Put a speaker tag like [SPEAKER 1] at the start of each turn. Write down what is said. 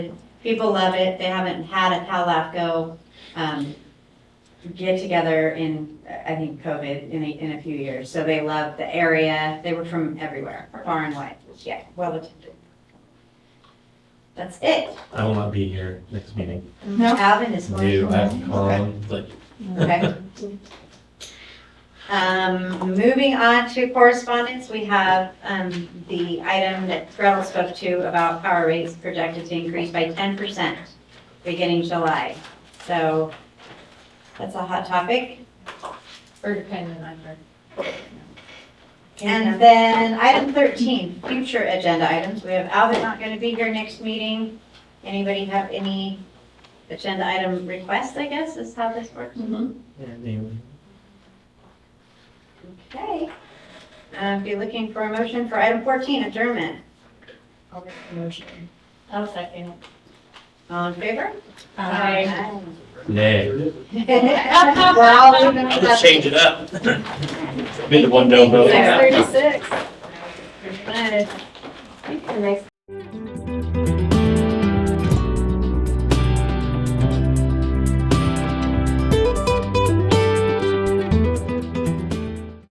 [SPEAKER 1] People love it. They haven't had a Calafco um, get together in, I think, COVID in a, in a few years. So they love the area. They were from everywhere, far and wide. Yeah, well attended. That's it.
[SPEAKER 2] I will not be here next meeting.
[SPEAKER 3] No.
[SPEAKER 1] Alvin is going.
[SPEAKER 2] Do have conflict.
[SPEAKER 1] Okay. Um, moving on to correspondence, we have, um, the item that Gretel spoke to about power rates projected to increase by ten percent beginning July. So that's a hot topic.
[SPEAKER 3] Or dependent on her.
[SPEAKER 1] And then item thirteen, future agenda items. We have Alvin not gonna be here next meeting. Anybody have any agenda item requests, I guess, is how this works? Okay. Uh, If you're looking for a motion for item 14, adjournment.
[SPEAKER 3] I'll make the motion.
[SPEAKER 1] I'll second. All in favor?
[SPEAKER 3] Aye.
[SPEAKER 2] Nay.
[SPEAKER 1] We're all in the.
[SPEAKER 2] Let's change it up. Been the one no vote.
[SPEAKER 3] Six thirty-six.
[SPEAKER 1] Thanks.